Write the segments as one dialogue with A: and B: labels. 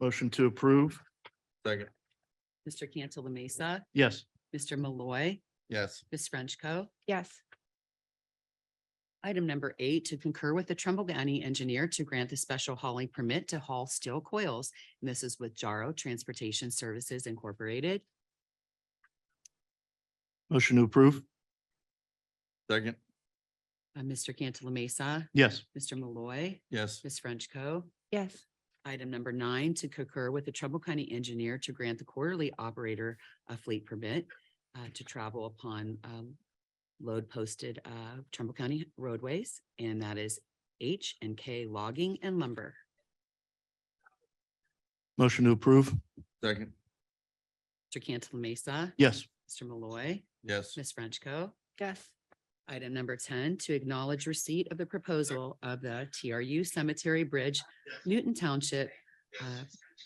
A: Motion to approve?
B: Second.
C: Mr. Cantala Mesa,
A: Yes.
C: Mr. Malloy,
B: Yes.
C: Ms. Frenchco.
D: yes,
C: Item number eight, to concur with the Trumbull County Engineer to grant the special hauling permit to haul steel coils. And this is with Jaro Transportation Services Incorporated.
A: Motion to approve?
B: Second.
C: Uh, Mr. Cantala Mesa,
A: Yes.
C: Mr. Malloy,
B: Yes.
C: Ms. Frenchco.
D: yes,
C: Item number nine, to concur with the Trumbull County Engineer to grant the quarterly operator a fleet permit uh, to travel upon um, load posted uh, Trumbull County roadways, and that is H and K Logging and Lumber.
A: Motion to approve?
B: Second.
C: Mr. Cantala Mesa,
A: Yes.
C: Mr. Malloy,
B: Yes.
C: Ms. Frenchco.
D: yes,
C: Item number ten, to acknowledge receipt of the proposal of the TRU Cemetery Bridge, Newton Township, uh,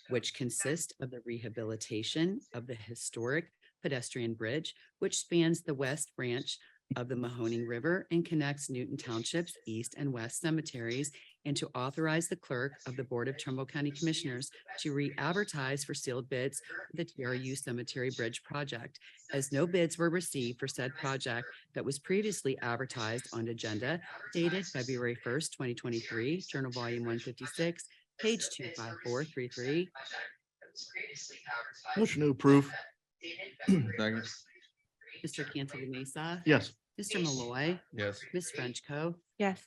C: which consists of the rehabilitation of the historic pedestrian bridge, which spans the west branch of the Mahoning River and connects Newton Township's east and west cemeteries, and to authorize the clerk of the Board of Trumbull County Commissioners to re-advertise for sealed bids for the TRU Cemetery Bridge project, as no bids were received for said project that was previously advertised on agenda dated February first, twenty twenty-three, Journal Volume one fifty-six, page two five four three three.
A: Motion to approve?
B: Second.
C: Mr. Cantala Mesa.
A: Yes.
C: Mr. Malloy,
B: Yes.
C: Ms. Frenchco.
D: yes,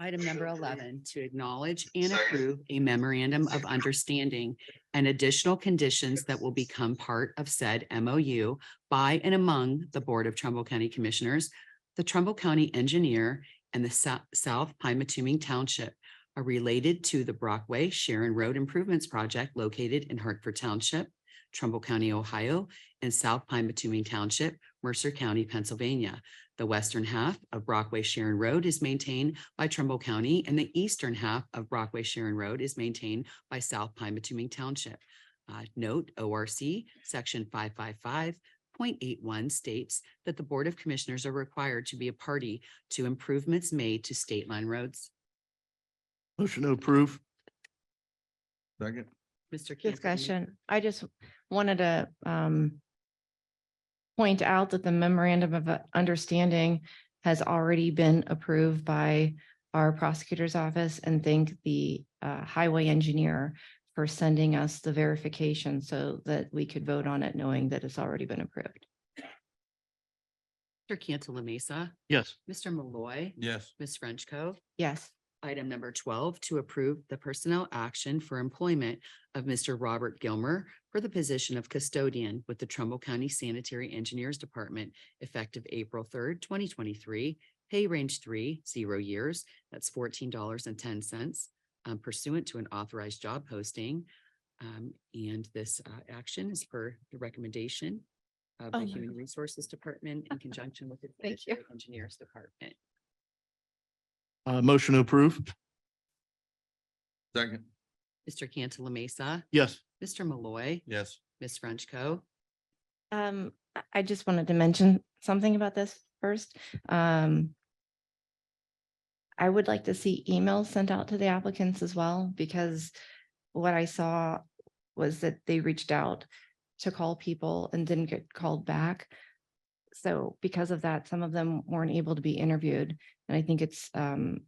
C: Item number eleven, to acknowledge and approve a memorandum of understanding and additional conditions that will become part of said MOU by and among the Board of Trumbull County Commissioners, the Trumbull County Engineer, and the Sou- South Pymatuming Township are related to the Brockway Sharon Road Improvements Project located in Hartford Township, Trumbull County, Ohio, and South Pymatuming Township, Mercer County, Pennsylvania. The western half of Brockway Sharon Road is maintained by Trumbull County, and the eastern half of Brockway Sharon Road is maintained by South Pine Bituming Township. Uh, Note, ORC, Section five five five point eight one states that the Board of Commissioners are required to be a party to improvements made to state line roads.
A: Motion to approve?
B: Second.
C: Mr. Cantala Mesa.
D: discussion. I just wanted to um point out that the memorandum of uh, understanding has already been approved by our prosecutor's office and thank the uh highway engineer for sending us the verification so that we could vote on it knowing that it's already been approved.
C: Mr. Cantala Mesa,
A: Yes.
C: Mr. Malloy,
B: Yes.
C: Ms. Frenchco.
D: Yes,
C: Item number twelve, to approve the personnel action for employment of Mr. Robert Gilmer for the position of custodian with the Trumbull County Sanitary Engineers Department effective April third, twenty twenty-three, pay range three, zero years, that's fourteen dollars and ten cents um, pursuant to an authorized job posting. Um, and this uh, action is per the recommendation of
D: Oh
C: the
D: my
C: Human Resources Department in conjunction with the
D: Thank you.
C: Sanitary Engineers Department.
A: Uh, motion to approve?
B: Second.
C: Mr. Cantala Mesa,
A: Yes.
C: Mr. Malloy.
B: Yes.
C: Ms. Frenchco.
D: Um, I- I just wanted to mention something about this first. Um. I would like to see emails sent out to the applicants as well, because what I saw was that they reached out to call people and didn't get called back. So because of that, some of them weren't able to be interviewed, and I think it's um.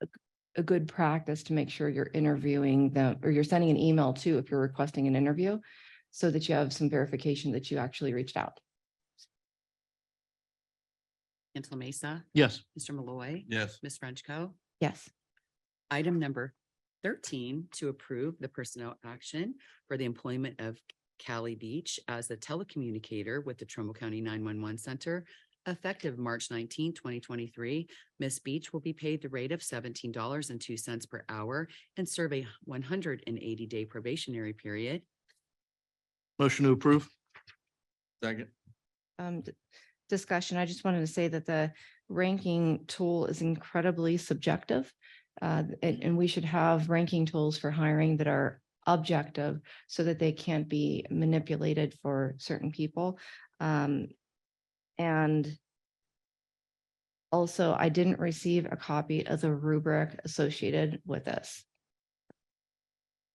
D: a g- A good practice to make sure you're interviewing them, or you're sending an email too, if you're requesting an interview so that you have some verification that you actually reached out.
C: Cantala Mesa,
A: Yes.
C: Mr. Malloy,
B: Yes.
C: Ms. Frenchco.
D: Yes,
C: Item number thirteen, to approve the personnel action for the employment of Cali Beach as a telecommunicator with the Trumbull County nine-one-one center effective March 19, 2023. Miss Beach will be paid the rate of seventeen dollars and two cents per hour and serve a one hundred and eighty-day probationary period.
A: Motion to approve?
B: Second.
D: um, d- discussion, I just wanted to say that the ranking tool is incredibly subjective. Uh, and, and we should have ranking tools for hiring that are objective so that they can't be manipulated for certain people. Um, and also I didn't receive a copy of the rubric associated with this.